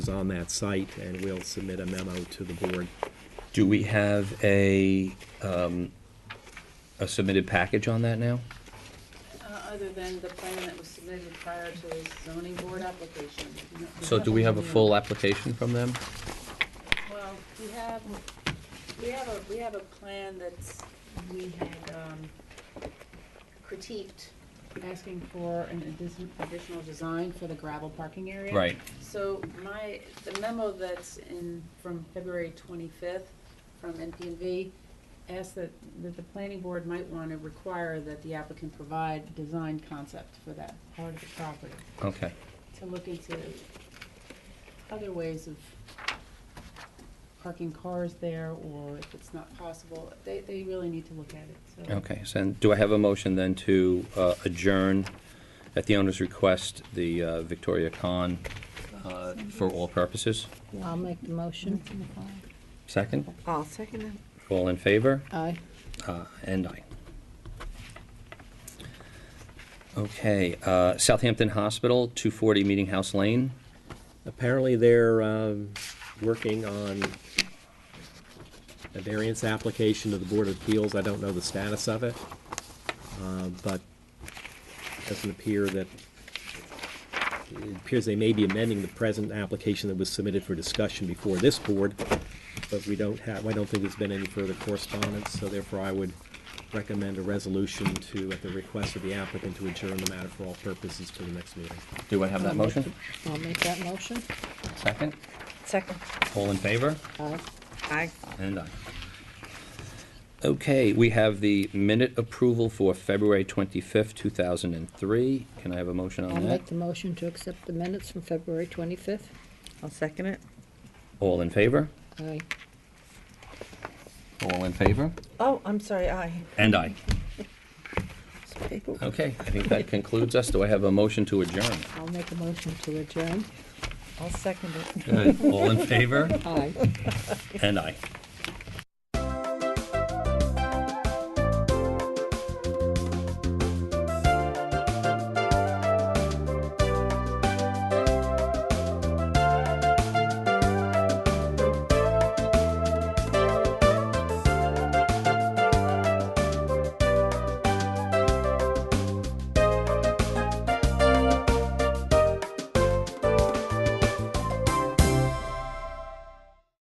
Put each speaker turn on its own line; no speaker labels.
is on that site, and we'll submit a memo to the board.
Do we have a, um, a submitted package on that now?
Uh, Other than the plan that was submitted prior to the zoning board application.
So do we have a full application from them?
Well, we have, we have a, we have a plan that's, we had um, critiqued, asking for an addition- additional design for the gravel parking area.
Right,
So my, the memo that's in, from February 25th, from NPV, asked that, that the planning board might want to require that the applicant provide design concept for that part of the property,
okay.
to look into other ways of parking cars there, or if it's not possible, they, they really need to look at it, so.
Okay, so then do I have a motion then to uh, adjourn at the owner's request, the uh, Victoria Khan uh, for all purposes?
I'll make the motion.
Second,
I'll second it.
all in favor?
Aye.
Uh, And aye. Okay, uh, Southampton Hospital, 240 Meeting House Lane.
Apparently, they're um, working on a variance application to the Board of Appeals. I don't know the status of it, uh, but it doesn't appear that, it appears they may be amending the present application that was submitted for discussion before this board, but we don't have, I don't think there's been any further correspondence, so therefore I would recommend a resolution to, at the request of the applicant, to adjourn the matter for all purposes to the next meeting.
Do I have that motion?
I'll make that motion.
Second,
Second.
all in favor?
Aye.
Aye.
And aye. Okay, we have the minute approval for February 25th, 2003. Can I have a motion
I'll
on that?
make the motion to accept the minutes from February 25th.
I'll second it.
All in favor?
Aye.
All in favor?
Oh, I'm sorry, aye.
And aye.
Some people-
Okay, I think that concludes us. Do I have a motion to adjourn?
I'll make a motion to adjourn.
I'll second it.
All in favor?
Aye.
And aye.